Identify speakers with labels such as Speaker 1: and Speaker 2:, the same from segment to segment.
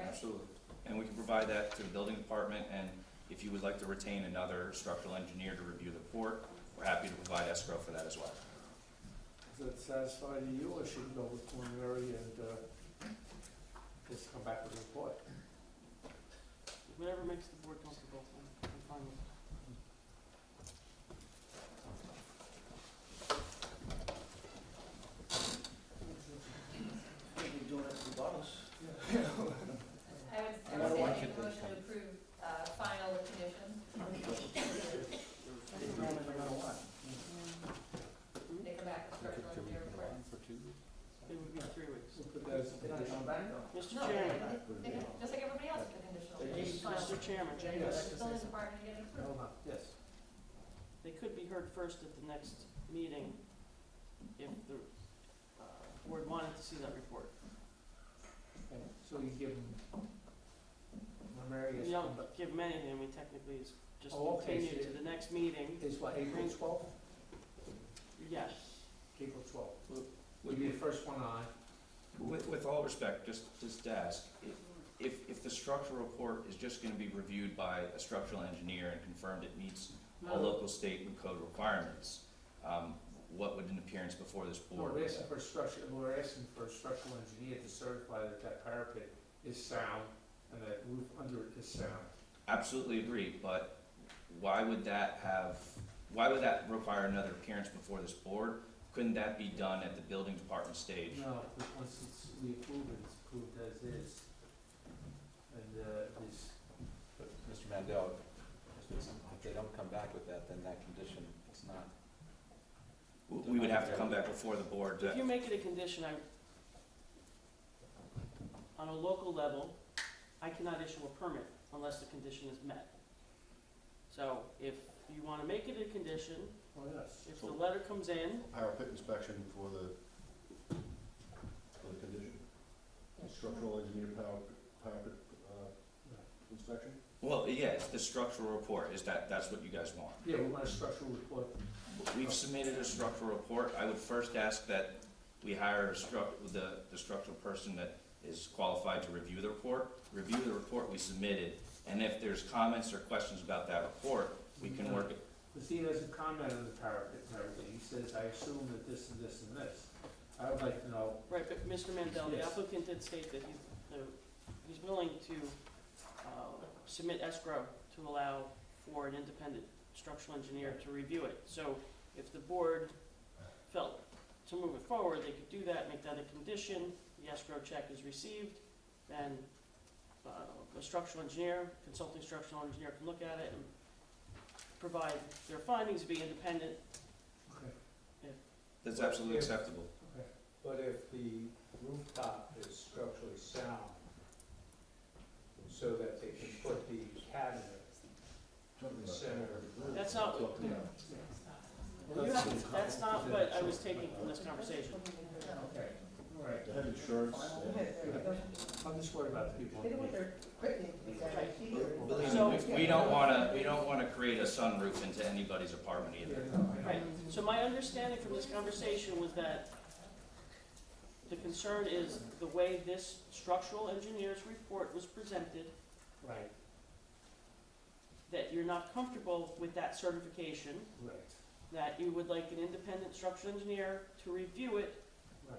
Speaker 1: Absolutely. And we can provide that to the building department, and if you would like to retain another structural engineer to review the report, we're happy to provide escrow for that as well.
Speaker 2: Does that satisfy you, or should we go with preliminary and, uh, just come back with a report?
Speaker 3: Whatever makes the board comfortable, I'm, I'm fine with it.
Speaker 4: I think you're doing it for bottles.
Speaker 5: I would, I would say make a motion to approve, uh, final with conditions.
Speaker 4: You're doing it no matter what.
Speaker 5: They come back with structural engineer report.
Speaker 3: It would be three weeks.
Speaker 2: Put that as a
Speaker 4: They're not
Speaker 2: condition.
Speaker 4: coming back though.
Speaker 3: Mr.
Speaker 5: No,
Speaker 3: Chairman,
Speaker 5: they- they can- just like everybody else with the conditional,
Speaker 4: They
Speaker 5: it's
Speaker 4: just-
Speaker 5: final.
Speaker 3: Mr. Chairman,
Speaker 4: Jane, I'd like to say
Speaker 5: Building
Speaker 4: something.
Speaker 5: department getting approved.
Speaker 4: Yes.
Speaker 3: they could be heard first at the next meeting if the, uh, board wanted to see that report.
Speaker 2: Okay, So you give them preliminary
Speaker 3: We
Speaker 2: is,
Speaker 3: don't give them anything, I mean technically it's just
Speaker 2: Oh, okay,
Speaker 3: continued
Speaker 2: so
Speaker 3: to the next meeting,
Speaker 2: is what, April twelfth?
Speaker 3: yes.
Speaker 2: April twelfth. We'll
Speaker 1: Would
Speaker 2: be
Speaker 1: you-
Speaker 2: the first one on.
Speaker 1: With, with all respect, just, just to ask, i- if, if the structural report is just gonna be reviewed by a structural engineer and confirmed it meets all local, state, and code requirements, um, what would an appearance before this
Speaker 2: No,
Speaker 1: board?
Speaker 2: We're asking for a structure, we're asking for a structural engineer to certify that that parapet is sound and that roof under it is sound.
Speaker 1: Absolutely agree, but why would that have, why would that require another appearance before this board? Couldn't that be done at the building department stage?
Speaker 2: No, but once it's, we approve it, it's approved as is. And, uh, this,
Speaker 6: But Mr. Mandel, if it's- if they don't come back with that, then that condition, it's not,
Speaker 1: W- We would have to come back before the board
Speaker 3: If
Speaker 1: to,
Speaker 3: you make it a condition, I, on a local level, I cannot issue a permit unless the condition is met. So if you wanna make it a condition,
Speaker 2: oh, yes.
Speaker 3: if the letter comes in,
Speaker 7: Parapet inspection for the, for the condition, structural engineer parapet, parapet, uh, inspection?
Speaker 1: well, yeah, it's the structural report, is that, that's what you guys want?
Speaker 2: Yeah, we want a structural report.
Speaker 1: We've submitted a structural report, I would first ask that we hire a struc, the, the structural person that is qualified to review the report, review the report we submitted, and if there's comments or questions about that report, we can work it.
Speaker 2: Because he doesn't comment on the parapet and everything. He says, I assume that this and this and this. I would like to know,
Speaker 3: right, but Mr. Mandel, the
Speaker 2: Yes.
Speaker 3: applicant did state that he's, the- he's willing to, uh, submit escrow to allow for an independent structural engineer to review it. So if the board felt to move it forward, they could do that, make that a condition, the escrow check is received, then, uh, a structural engineer, consulting structural engineer can look at it and provide their findings, be independent,
Speaker 2: okay,
Speaker 1: That's absolutely acceptable.
Speaker 2: okay.
Speaker 8: But if the rooftop is structurally sound, so that they can put the cabinet in the center of the room.
Speaker 3: that's not, what-
Speaker 7: Something else.
Speaker 3: You have- That's not what I was taking from this conversation.
Speaker 4: Yeah,
Speaker 2: Okay, all right.
Speaker 7: They have insurance,
Speaker 4: Final
Speaker 7: yeah.
Speaker 4: hit, there you go.
Speaker 2: I'm just worried about the people.
Speaker 4: They don't want their picnic to be down here.
Speaker 1: Believe me, we- we don't wanna, we don't wanna create a sunroof into anybody's apartment
Speaker 2: Yeah,
Speaker 1: either.
Speaker 2: no, I
Speaker 3: Right,
Speaker 2: know.
Speaker 3: so my understanding from this conversation was that the concern is the way this structural engineer's report was presented,
Speaker 2: Right,
Speaker 3: that you're not comfortable with that certification,
Speaker 2: right,
Speaker 3: that you would like an independent structural engineer to review it
Speaker 2: right.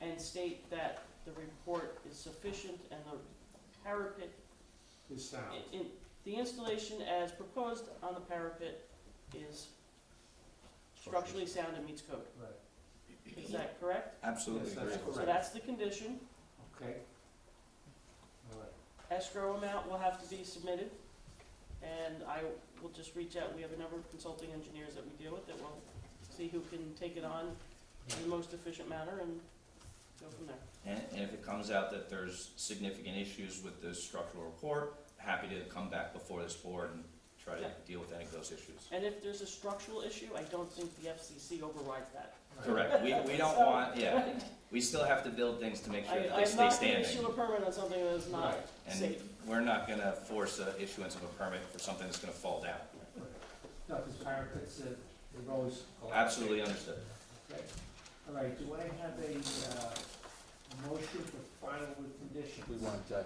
Speaker 3: and state that the report is sufficient and the parapet,
Speaker 2: It's sound.
Speaker 3: in- in, the installation as proposed on the parapet is structurally sound and meets code.
Speaker 2: Right.
Speaker 3: Is that correct?
Speaker 1: Absolutely
Speaker 2: Yes, that's
Speaker 1: agree.
Speaker 3: So
Speaker 2: correct.
Speaker 3: that's the condition.
Speaker 2: Okay. All right.
Speaker 3: Escrow amount will have to be submitted, and I will just reach out. We have a number of consulting engineers that we deal with that will see who can take it on in the most efficient manner and go from there.
Speaker 1: And, and if it comes out that there's significant issues with the structural report, happy to come back before this board and try to
Speaker 3: Yeah.
Speaker 1: deal with any of those issues.
Speaker 3: And if there's a structural issue, I don't think the FCC overrides that.
Speaker 1: Correct, we, we don't
Speaker 3: So-
Speaker 1: want, yeah, we still have to build things to make sure
Speaker 3: I,
Speaker 1: that they
Speaker 3: I'm
Speaker 1: stay
Speaker 3: not gonna issue
Speaker 1: standing.
Speaker 3: a permit on something that is not
Speaker 2: Right.
Speaker 1: And
Speaker 3: safe.
Speaker 1: we're not gonna force a issuance of a permit for something that's gonna fall down.
Speaker 2: No, because parapets, uh, they're always.
Speaker 1: Absolutely understood.
Speaker 2: Okay. All right, do I have a, uh, motion for final with conditions?
Speaker 6: we want uh,